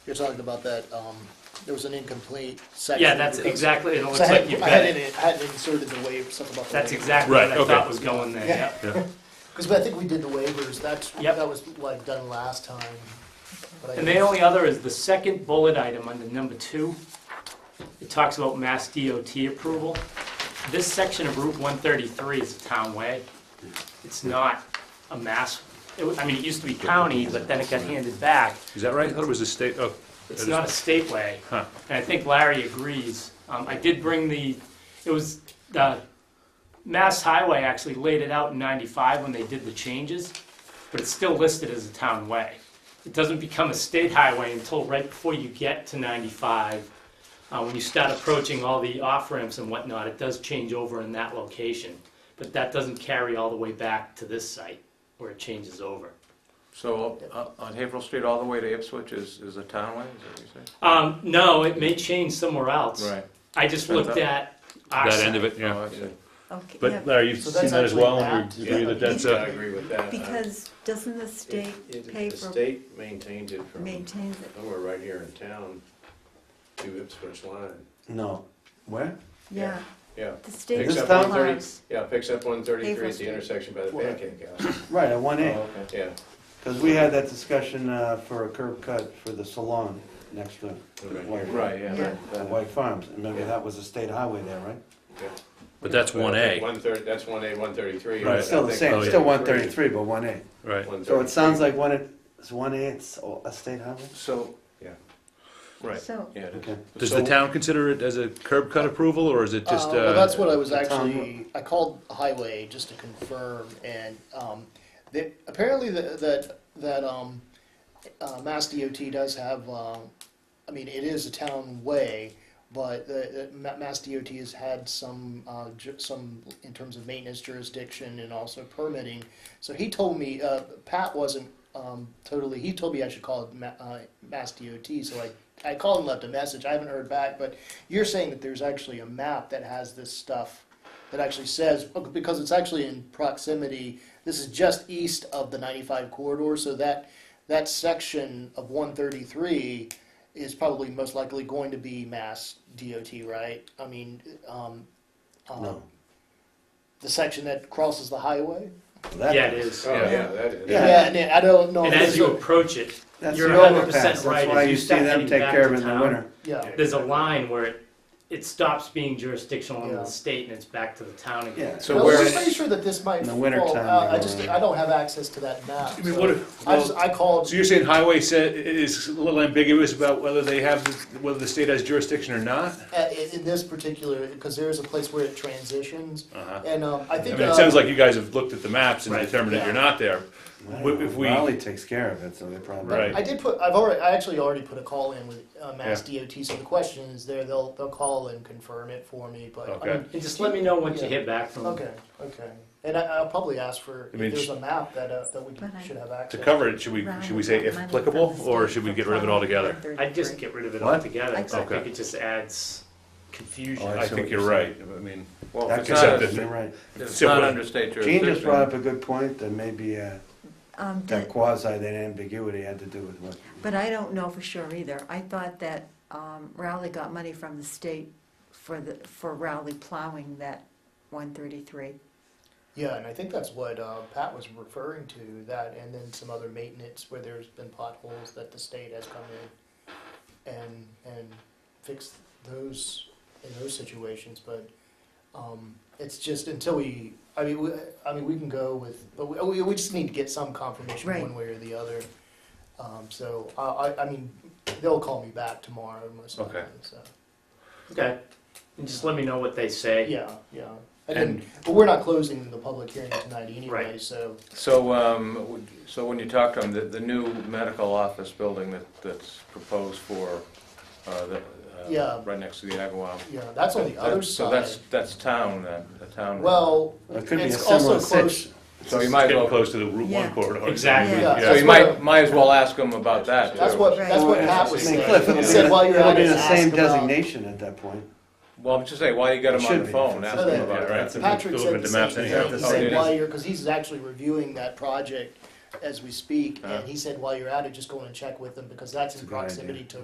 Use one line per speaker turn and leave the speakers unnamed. You're talking about that, um, there was an incomplete section.
Yeah, that's
because-
exactly, it looks
So I
like
had,
you've
I
got
had
it.
it, I had inserted the waiver, something about the
That's
waiver.
exactly what
Right,
I thought
okay.
was going there,
Yeah.
yeah.
Yeah,
Cause I think we did the waivers, that's,
Yep.
that was what I'd done last time. but I
And the
didn't-
only other is the second bullet item under number two. It talks about Mass DOT approval. This section of Route 133 is a town way. It's not a mass, it wa- I mean, it used to be county, but then it got handed back.
is that right? I thought it was a state, oh.
It's not a state way.
Huh.
And I think Larry agrees. Um, I did bring the, it was, the Mass Highway actually laid it out in ninety-five when they did the changes, but it's still listed as a town way. It doesn't become a state highway until right before you get to ninety-five. Uh, when you start approaching all the off-ramps and whatnot, it does change over in that location. But that doesn't carry all the way back to this site where it changes over.
So up- on Haverhill Street all the way to Ipswich is, is a townway, is that what you said?
Um, no, it may change somewhere else. I just looked at our
That end
side.
of it,
Oh,
yeah.
I see.
Okay, yeah,
But Larry, you've
So
seen
that's
that as
actually
well, and
mapped.
you agree that that's
Yeah.
a,
I agree with that.
because doesn't the
Uh, it-
state
it-
pay
The
for,
state maintains it from
maintains it?
somewhere right here in town to Ipswich line.
No. Where?
Yeah,
Yeah,
the state
Except for the thirty-
applies.
yeah, picks up one thirty-three
Haverhill
at the
Street.
intersection by the pancake house.
Right, at one
Oh,
A.
Yeah.
Because we had that discussion uh, for a curb cut for the salon next to White.
Yeah.
uh, White Farms. Remember,
Yeah.
that was a state highway there, right?
but that's one A,
One thirty, that's one A, one thirty-three.
It's Still the same,
Oh, yeah.
still one thirty-three, but one A.
right?
So it sounds like one, A- it's one A, it's a state highway?
So,
Yeah.
right,
So,
yeah. it is.
Okay.
Does the
So-
town consider it as a curb cut approval, or is it just,
Uh,
uh?
well, that's what I was
the town
actually, I called highway just to confirm and, um, they, apparently that, that, that, um, uh, Mass DOT does have, um, I mean, it is a town way, but the, the Ma- Mass DOT has had some, uh, ju- some, in terms of maintenance jurisdiction and also permitting. So he told me, uh, Pat wasn't, um, totally, he told me I should call it Ma- uh, Mass DOT, so I, I called and left a message, I haven't heard back, but you're saying that there's actually a map that has this stuff that actually says, oh, because it's actually in proximity, this is just east of the 95 corridor, so that, that section of 133 is probably most likely going to be mass DOT, right? I mean, um, um,
No.
the section that crosses the highway?
That-
Yeah, it is.
Oh, yeah, that is.
Yeah.
Yeah, and I don't know.
And
if
as
there's
you
a-
approach it,
That's
You're
the
100%
overpass.
right.
That's why
If
you
you
see
start
them
heading
take
back
care of
to
it in the
town,
winter.
Yeah.
there's a line where it, it stops being jurisdictional under
Yeah.
the state and it's back to the town again.
Yeah.
So
No,
where-
I'm just pretty sure that this might
In the winter
fall
time,
out. I
they
just,
go around.
I don't have access to that map.
I mean,
so
what if-
I just, I called,
So you're saying highway said, is a little ambiguous about whether they have, whether the state has jurisdiction or not?
at- in in this particular, because there is a place where it transitions,
Uh-huh.
and um, I
I
think.
mean, it
uh,
sounds like you guys have looked at the maps and
Right.
determined that
Yeah.
you're not there.
I don't
If-
know.
if we-
Raleigh takes care of it, so they probably.
Right.
I did put, I've already, I actually already put a call in with uh, Mass DOT, so the question is there, they'll, they'll call and confirm it for me, but, I
Okay.
mean,
And just let me know once you hear back from them.
okay, okay. And I, I'll probably ask for,
I
if
mean,
there's
sh-
a map that, uh, that we
But I-
should have
To
access.
cover it, should we,
round
should we say if
about money from
applicable,
the
or
state
should we
for
get rid of it altogether?
Prop.
I'd just get rid of it
What?
altogether, 'cause I
Okay.
think it just adds
Oh,
confusion.
I
I
see
think
what you're
you're right, I mean,
Well, if
That
it's
could
not,
Except
happen,
that-
a-
you're right.
if it's not under state
Gene just brought up
jurisdiction.
a good point, that maybe uh,
um,
that
the-
quasi, that ambiguity had to do with what.
but I don't know for sure either. I thought that um, Rowley got money from the state for the, for Rowley plowing that one thirty-three.
Yeah, and I think that's what uh, Pat was referring to, that and then some other maintenance where there's been potholes that the state has come in and, and fixed those, in those situations, but um, it's just until we, I mean, we, I mean, we can go with, but we- we, we just need to get some confirmation
Right.
one way or the other. Um, So, I, I, I mean, they'll call me back tomorrow, most likely,
Okay.
so,
Okay. And just let me know what they say.
yeah, yeah. And then, but we're not closing the public hearing tonight anyway,
Right.
so.
So, um, would- so when you talk to them, the, the new medical office building that, that's proposed for, uh, the,
Yeah.
uh, right next to the Agawam.
Yeah, that's on the other
That-
side.
So that's, that's town, then, the town. road.
well,
It could be a
it's
similar
also
situation.
close.
So you might as
getting
well,
close to the Route One
Yeah.
corridor.
Exactly.
Yeah.
so
that's
you
what
might, might as well ask them about that, too.
That's what
Right.
that's what
Well,
Pat was
I mean,
saying.
Cliff, it'll
he
be-
said while you're
it'll
at
be
it,
the
ask
same
about-
designation at that point.
Well, I'm just saying, why you got them
It
on
should
the
be.
phone, ask them
Yeah,
about
right.
that.
They're
Patrick
looking
said
at
the
the maps
same
anyhow.
thing. He
Oh, it
said
is.
while you're because he's actually reviewing that project as we speak.
Yeah. Uh.
And he said, while you're at it, just go in and check with them because that's
It's
in
a good idea.
proximity to